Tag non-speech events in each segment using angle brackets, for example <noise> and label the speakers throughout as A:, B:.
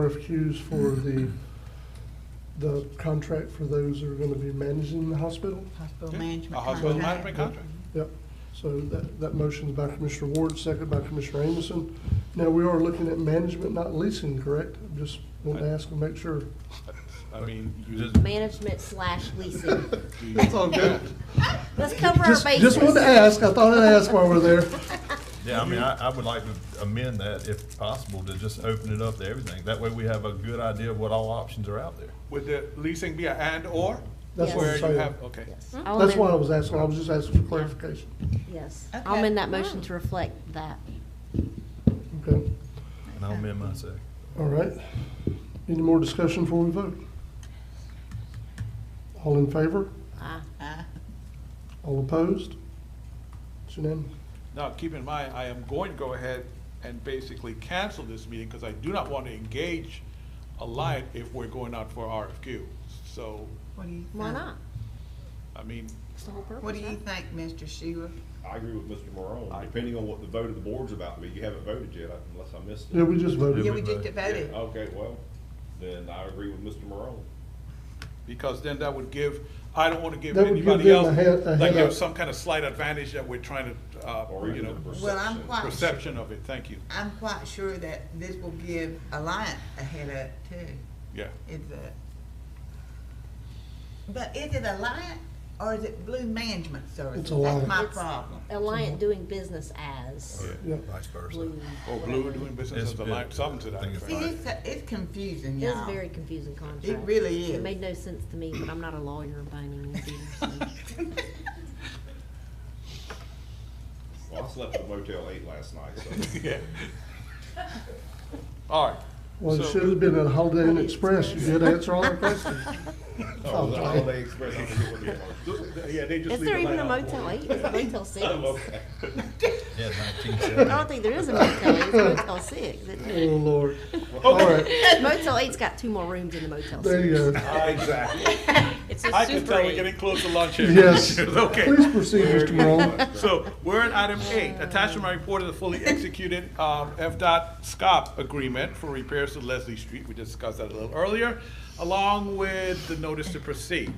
A: RFQs for the, the contract for those that are gonna be managing the hospital.
B: Hospital
C: Yeah,
B: management.
C: A hospital
B: contract.
C: management contract.
A: Yep, so that, that motion's by Commissioner Ward, second by Commissioner Amison. Now, we are looking at management, not leasing, correct? Just want to ask and make sure.
C: I mean, you just.
D: Management slash
A: <laughs>
D: leasing.
A: That's all good.
D: Let's cover our
A: Just,
D: bases.
A: just wanted to ask, I thought I'd ask while we're there.
E: Yeah, I mean, I, I would like to amend that if possible, to just open it up to everything. That way we have a good idea of what all options are out there.
C: Would the leasing be a and/or?
A: That's
D: what I'm
C: Where
A: saying.
C: you have, okay.
D: Yes. I'll
A: That's why I
D: amend-
A: was asking, I was just asking for clarification.
D: Yes, I'll
B: Okay.
D: amend that motion to reflect that.
A: Okay,
E: And I'll amend my second.
A: all right. Any more discussion before we vote? All in favor?
D: Ah,
B: Uh,
A: All opposed? It's unanimous.
C: Now, keep in mind, I am going to go ahead and basically cancel this meeting because I do not want to engage Alliant if we're going out for RFQ. So,
B: What do you think?
D: Why not?
C: I mean,
D: It's the whole purpose.
B: What do you
D: right?
B: think, Mr. Sheila?
F: I agree with Mr. Morone, depending on what the vote of the board's about, but you haven't voted yet unless I missed
A: Yeah,
F: it.
A: we just voted.
B: Yeah, we
E: we
B: just
E: vote?
B: voted.
F: Yeah, Okay, well, then I agree with Mr. Morone.
C: because then that would give, I don't want to give
A: That would give
C: anybody
A: them a
C: else,
A: head- a
C: like,
A: head
C: have
A: up.
C: some kind of slight advantage that we're trying to, uh,
F: Or
C: you
F: even
C: know,
F: the perception.
B: Well, I'm quite. su-
C: perception of it. Thank you.
B: I'm quite sure that this will give Alliant a head up too,
C: Yeah.
B: is that? But is it Alliant or is it Blue Management Services?
A: It's Alliant.
B: That's my
D: It's-
B: problem.
D: Alliant doing business as
A: Oh, Yeah.
E: Vice versa.
D: Blue.
B: Oh,
C: Or Blue doing business
E: It's
C: as a
E: been-
C: line, something to
E: I
C: that
E: think it's
C: effect.
B: See, it's, it's confusing,
D: It
B: y'all.
D: is
B: <laughs>
D: a very confusing contract.
B: It really
D: It
B: is.
D: made no sense to me, but I'm not a lawyer by any means
B: <laughs>
D: either.
F: Well, I slept at Motel Eight last night,
A: <laughs>
F: so.
C: Yeah. <laughs> All right.
A: Well, it
C: So-
A: should have been at Holiday Inn Express, you did answer all our questions.
F: Oh, was it Holiday Express? I forget what it was.
C: Yeah, they just
D: Is
C: leave
D: there
C: the
D: even a
C: light on.
D: <laughs>
F: <laughs>
D: Motel 8? Is it Motel 6?
F: Oh,
D: I
F: okay.
E: Yeah, nineteen
D: don't
E: seventy.
D: think there is a Motel 8, it's Motel 6. isn't
A: <laughs> Oh,
D: it?
A: Lord. All right, <laughs> uh,
D: Motel 8's got two more rooms in the Motel 6.
A: there you go.
F: <laughs>
C: Exactly.
G: It's a
C: I can
G: super
C: tell
G: eight.
C: we're getting close to lunch here. <laughs>
A: Yes. Please
C: Okay.
A: proceed, Mr. Morone.
C: <laughs> So we're at item eight, attached to my report of the fully executed um, FDOT SCOP agreement for repairs to Leslie Street. We discussed that a little earlier, along with the notice to proceed.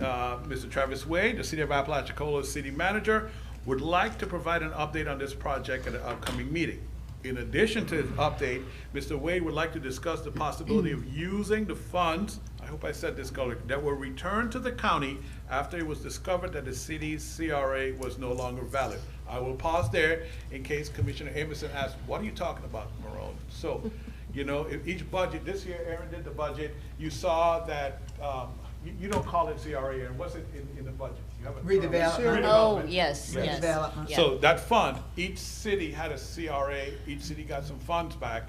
C: Uh, Mr. Travis Wade, the City of Apalachicola City Manager, would like to provide an update on this project at an upcoming meeting. In addition to his update, Mr. Wade would like to discuss the possibility of using the funds, I hope I said this correctly, that were returned to the county after it was discovered that the city's CRA was no longer valid. I will pause there in case Commissioner Amerson asks, what are you talking about, Morone? So, you know, if each budget, this year Aaron did the budget, you saw that, um, you, you don't call it CRA, Aaron, what's it in, in the budget? You have a term.
B: Redevelopment.
G: Oh,
C: Redevelopment.
G: yes,
B: Yes.
G: yes.
B: Development.
G: yeah.
C: So that fund, each city had a CRA, each city got some funds back.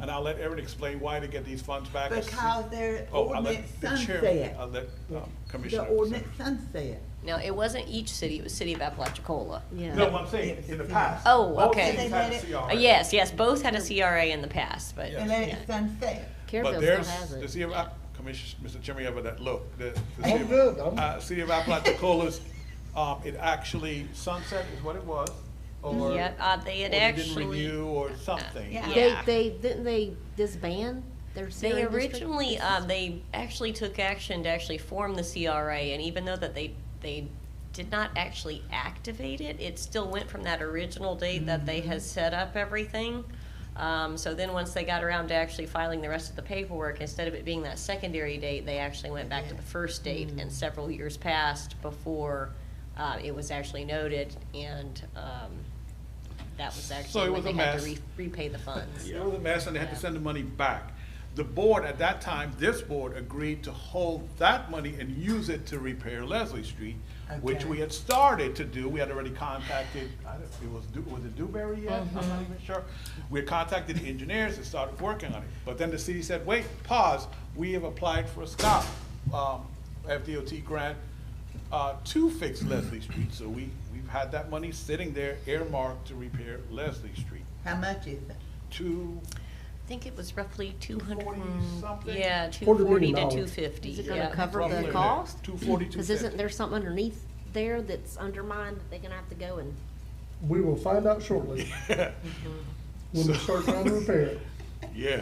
C: And I'll let Erin explain why they get these funds back.
B: Because their
C: Oh, I'll let
B: ordinance
C: the chair-
B: sunset.
C: I'll let um,
B: The
C: Commissioner.
B: ordinance sunset.
G: No, it wasn't each city, it was City of Apalachicola.
D: Yeah.
C: No, I'm saying, in the past.
G: Oh,
C: both
G: okay.
C: cities
B: They
C: had a
B: let it-
C: CRA.
G: Uh, Yes, yes, both had a CRA in the past, but,
B: And let it sunset.
C: But
D: Careville still
C: there's,
D: has
C: the
D: it.
C: city of, App- Commissioner, Mr. Chairman, you have that look, the. the
A: I'm
C: city of-
A: good, I'm-
C: Uh, city of Apalachicolas, um, it actually, sunset is what it was, or.
G: yeah, uh, they
C: or
G: had
C: they didn't
G: actually,
C: renew or something.
B: Yeah.
D: They,
G: yeah.
D: they, didn't they disband their
G: They
D: CRA district?
G: originally, um, they actually took action to actually form the CRA, and even though that they, they did not actually activate it, it still went from that original date that they had set up everything. Um, so then once they got around to actually filing the rest of the paperwork, instead of it being that secondary date, they actually went back to the first date, and several years passed before, uh, it was actually noted, and, um, that was
C: it
G: actually when
C: was a
G: they had to
C: mess.
G: re- repay the funds.
C: It was a mess, and they had to send the money back. The board, at that time, this board agreed to hold that money and use it to repair Leslie Street, which
B: Okay.
C: we had started to do. We had already contacted, I don't, it was, Du- was it Dewberry yet? I'm not even sure. We had contacted the engineers and started working on it. But then the city said, wait, pause, we have applied for a SCOP, um, FDOT grant, uh, to fix Leslie Street. So we, we've had that money sitting there earmarked to repair Leslie Street.
B: How much is it?
C: To
G: I think it was roughly two hundred. hmm,
C: 240-something?
G: Yeah, two
A: Quarter
G: forty
A: million
G: to
A: dollars.
G: two fifty.
D: Is it gonna cover
C: roughly
D: the
C: there,
D: cost?
C: 242.
D: Cause isn't there something underneath there that's undermined that they're gonna have to go and,
A: We will find out shortly. When we start trying to repair it.
C: Yeah,